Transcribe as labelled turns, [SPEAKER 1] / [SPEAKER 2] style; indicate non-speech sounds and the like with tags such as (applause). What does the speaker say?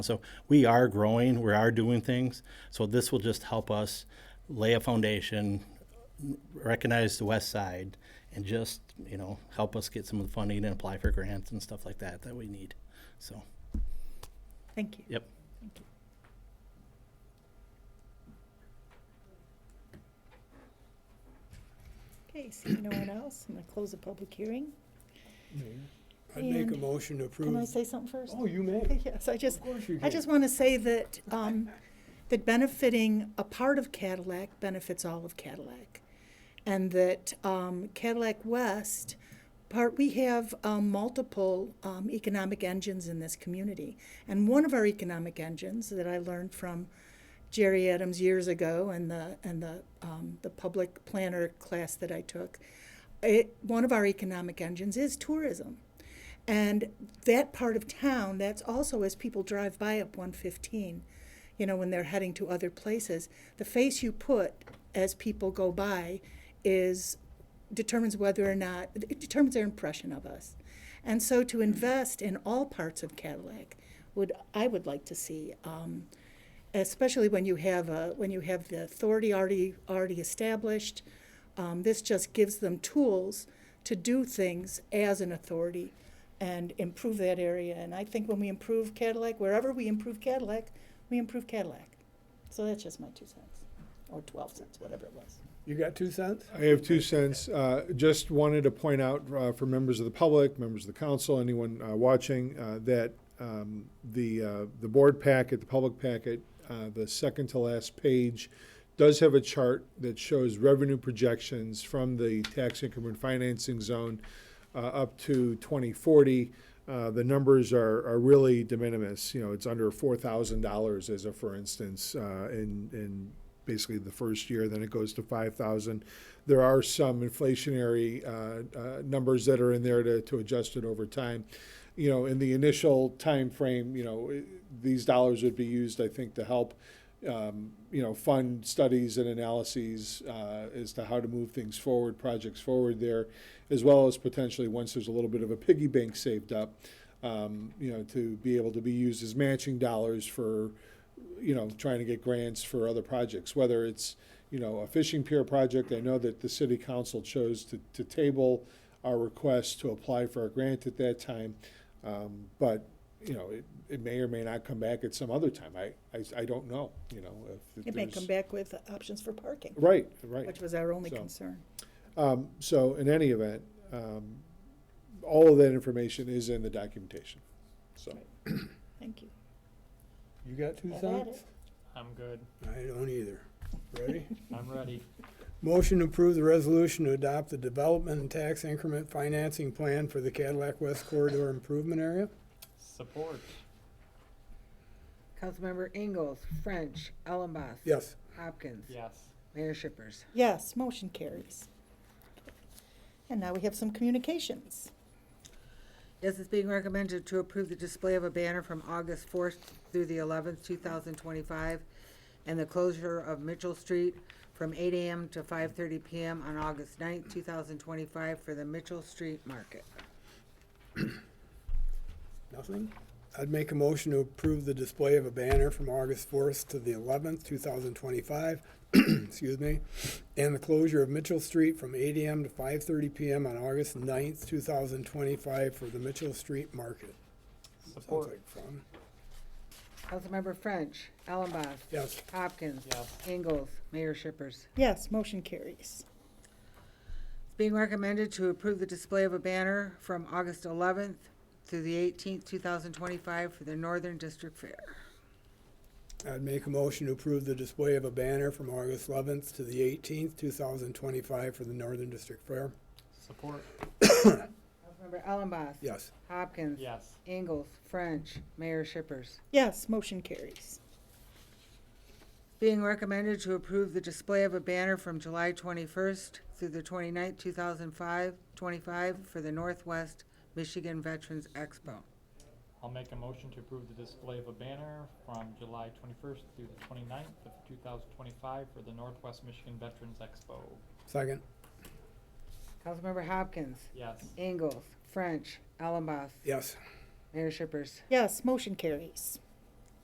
[SPEAKER 1] So we are growing, we are doing things. So this will just help us lay a foundation, recognize the west side, and just, you know, help us get some of the funding and apply for grants and stuff like that that we need. So,
[SPEAKER 2] Thank you.
[SPEAKER 1] yep.
[SPEAKER 2] Okay, seeing no one else, I'm gonna close the public hearing.
[SPEAKER 3] I'd make a
[SPEAKER 2] And-
[SPEAKER 3] motion to
[SPEAKER 2] Can I
[SPEAKER 3] approve.
[SPEAKER 2] say something first? (laughs)
[SPEAKER 3] Oh, you may.
[SPEAKER 2] Yes, I just,
[SPEAKER 3] Of course you
[SPEAKER 2] I
[SPEAKER 3] can.
[SPEAKER 2] just want to say that, um, that benefiting a part of Cadillac benefits all of Cadillac. And that, um, Cadillac West, part, we have, um, multiple, um, economic engines in this community. And one of our economic engines that I learned from Jerry Adams years ago and the, and the, um, the public planner class that I took, it, one of our economic engines is tourism. And that part of town, that's also as people drive by up 115, you know, when they're heading to other places, the face you put as people go by is determines whether or not it determines their impression of us. And so to invest in all parts of Cadillac would I would like to see um, especially when you have a, when you have the authority already already established. Um, this just gives them tools to do things as an authority and improve that area. And I think when we improve Cadillac, wherever we improve Cadillac, we improve Cadillac. So that's just my two cents, or twelve cents, whatever it was.
[SPEAKER 3] You got two cents?
[SPEAKER 4] I have two cents. Uh, Just wanted to point out uh, for members of the public, members of the council, anyone uh, watching, uh, that um, the, uh, the board packet, the public packet, uh, the second to last page does have a chart that shows revenue projections from the tax income and financing zone uh, up to 2040. Uh, The numbers are, are really de minimis. You know, it's under $4,000 as a, for instance, uh, in, in basically the first year, then it goes to 5,000. There are some inflationary uh, uh, numbers that are in there to, to adjust it over time. You know, in the initial time frame, you know, i- these dollars would be used, I think, to help, um, you know, fund studies and analyses uh, as to how to move things forward, projects forward there, as well as potentially, once there's a little bit of a piggy bank saved up, um, you know, to be able to be used as matching dollars for, you know, trying to get grants for other projects, whether it's, you know, a fishing pier project. I know that the city council chose to, to table our request to apply for a grant at that time. Um, but, you know, it, it may or may not come back at some other time. I, I, I don't know, you know, if.
[SPEAKER 2] It may
[SPEAKER 4] there's-
[SPEAKER 2] come back with options for parking,
[SPEAKER 4] Right, right.
[SPEAKER 2] which was our only
[SPEAKER 4] So-
[SPEAKER 2] concern.
[SPEAKER 4] Um, so in any event, um, all of that information is in the documentation, so.
[SPEAKER 2] Thank you.
[SPEAKER 3] You got two
[SPEAKER 2] I had
[SPEAKER 3] cents?
[SPEAKER 2] it.
[SPEAKER 5] I'm good.
[SPEAKER 3] I don't either. Ready? (laughs)
[SPEAKER 5] I'm ready.
[SPEAKER 3] Motion to approve the resolution to adopt the development and tax increment financing plan for the Cadillac West Corridor Improvement Area.
[SPEAKER 5] Support.
[SPEAKER 6] Councilmember Ingalls, French, Ellenboss.
[SPEAKER 3] Yes.
[SPEAKER 6] Hopkins.
[SPEAKER 5] Yes.
[SPEAKER 6] Mayor Shippers.
[SPEAKER 2] Yes, motion carries. And now we have some communications.
[SPEAKER 6] Yes, it's being recommended to approve the display of a banner from August fourth through the eleventh, two thousand twenty-five, and the closure of Mitchell Street from eight AM to five thirty PM on August ninth, two thousand twenty-five for the Mitchell Street Market.
[SPEAKER 3] Nothing? I'd make a motion to approve the display of a banner from August fourth to the eleventh, two thousand twenty-five, (clears throat) excuse me, and the closure of Mitchell Street from eight AM to five thirty PM on August ninth, two thousand twenty-five for the Mitchell Street Market. Sounds
[SPEAKER 5] Support.
[SPEAKER 3] like fun.
[SPEAKER 6] Councilmember French, Ellenboss.
[SPEAKER 3] Yes.
[SPEAKER 6] Hopkins.
[SPEAKER 5] Yes.
[SPEAKER 6] Ingalls, Mayor Shippers.
[SPEAKER 2] Yes, motion carries.
[SPEAKER 6] It's being recommended to approve the display of a banner from August 11th through the 18th, 2025 for the Northern District Fair.
[SPEAKER 3] I'd make a motion to approve the display of a banner from August eleventh to the eighteenth, two thousand twenty-five for the Northern District Fair.
[SPEAKER 5] Support.
[SPEAKER 6] Councilmember Ellenboss?
[SPEAKER 3] Yes.
[SPEAKER 6] Hopkins?
[SPEAKER 5] Yes.
[SPEAKER 6] Ingalls? French? Mayor Shippers?
[SPEAKER 2] Yes, motion carries.
[SPEAKER 6] Being recommended to approve the display of a banner from July 21st through the 29th, 2005, 25 for the Northwest Michigan Veterans Expo.
[SPEAKER 5] I'll make a motion to approve the display of a banner from July 21st through the 29th of 2025 for the Northwest Michigan Veterans Expo.
[SPEAKER 3] Second?
[SPEAKER 6] Councilmember Hopkins?
[SPEAKER 5] Yes.
[SPEAKER 6] Ingalls? French? Ellenboss?
[SPEAKER 3] Yes.
[SPEAKER 6] Mayor Shippers?
[SPEAKER 2] Yes, motion carries.